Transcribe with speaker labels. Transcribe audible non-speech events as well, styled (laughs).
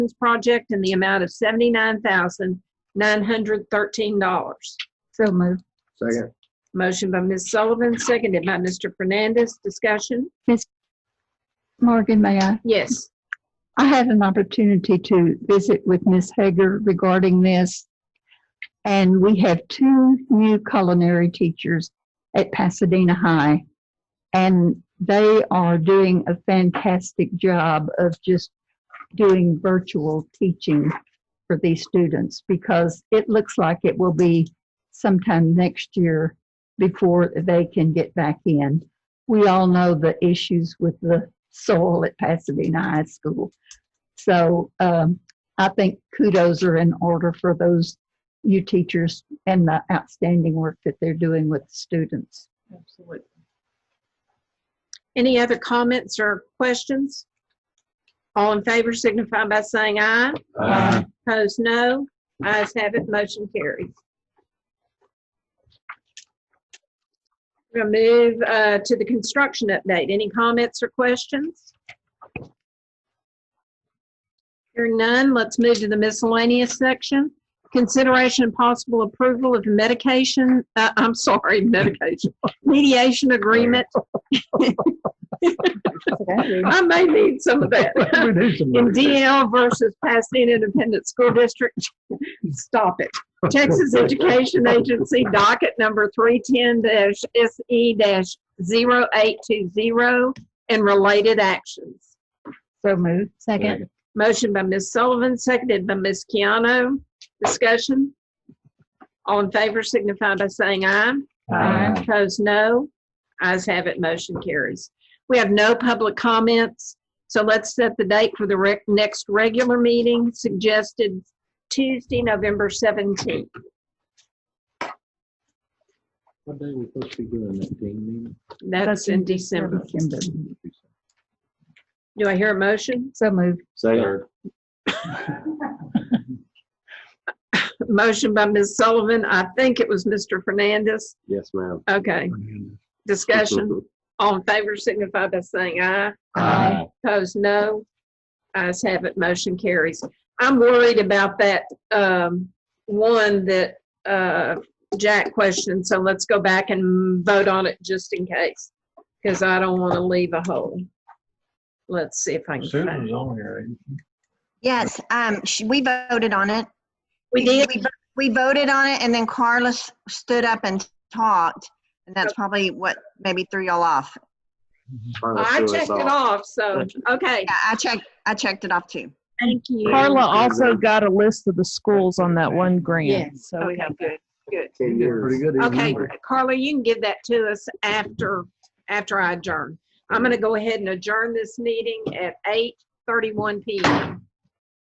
Speaker 1: project in the amount of seventy-nine thousand, nine hundred thirteen dollars.
Speaker 2: So moved.
Speaker 3: Second.
Speaker 1: Motion by Ms. Sullivan, seconded by Mr. Fernandez. Discussion?
Speaker 2: Morgan, may I?
Speaker 1: Yes.
Speaker 2: I had an opportunity to visit with Ms. Hager regarding this. And we have two new culinary teachers at Pasadena High. And they are doing a fantastic job of just doing virtual teaching for these students because it looks like it will be sometime next year before they can get back in. We all know the issues with the soil at Pasadena High School. So um, I think kudos are in order for those you teachers and the outstanding work that they're doing with the students.
Speaker 4: Absolutely.
Speaker 1: Any other comments or questions? All in favor signify by saying aye.
Speaker 3: Aye.
Speaker 1: Opposed, no. Ayes have it, motion carries. We're going to move uh, to the construction update. Any comments or questions? Hearing none, let's move to the miscellaneous section. Consideration and possible approval of medication, uh, I'm sorry, (laughs) medication, mediation agreement. I may need some (laughs) of that.
Speaker 3: We need some
Speaker 1: in
Speaker 3: motion.
Speaker 1: DL versus Pasadena Independent School District. (laughs) Stop it. Texas Education Agency docket number E 310-SE-0820 and related actions.
Speaker 2: (laughs) So moved. Second.
Speaker 1: Motion by Ms. Sullivan, seconded by Ms. Keano. Discussion? All in favor signify by saying aye.
Speaker 2: Aye.
Speaker 1: Opposed, no. Ayes have it, motion carries. We have no public comments, so let's set the date for the rec- next regular meeting suggested Tuesday, November 17th.
Speaker 3: What day we supposed to be doing that team
Speaker 1: That's in December.
Speaker 3: meeting?
Speaker 1: Do I hear a motion?
Speaker 2: So moved.
Speaker 3: Second.
Speaker 1: Motion by Ms. Sullivan. I think it was Mr. Fernandez.
Speaker 3: Yes, ma'am.
Speaker 1: Okay, discussion.
Speaker 3: (laughs)
Speaker 1: All in favor signify by saying aye.
Speaker 2: Aye.
Speaker 1: Opposed, no. Ayes have it, motion carries. I'm worried about that, um, one that, uh, Jack questioned, so let's go back and vote on it just in case, because I don't want to leave a hole. Let's see if I can find.
Speaker 5: Susan's on here. ain't she?
Speaker 6: Yes, um, sh- we voted on it.
Speaker 1: We did,
Speaker 6: vo- We voted on it and then Carlos stood up and talked. And that's probably what maybe threw y'all off.
Speaker 1: I checked it off, so, okay,
Speaker 6: Yeah, I checked, I checked it off too.
Speaker 1: thank you.
Speaker 7: Carla also got a list of the schools on that one grant, so we
Speaker 1: Okay,
Speaker 7: have
Speaker 1: good, good.
Speaker 3: You did pretty good. didn't
Speaker 1: Okay,
Speaker 3: you?
Speaker 1: Carla, you can give that to us after, after I adjourn. I'm going to go ahead and adjourn this meeting at 8:31 PM.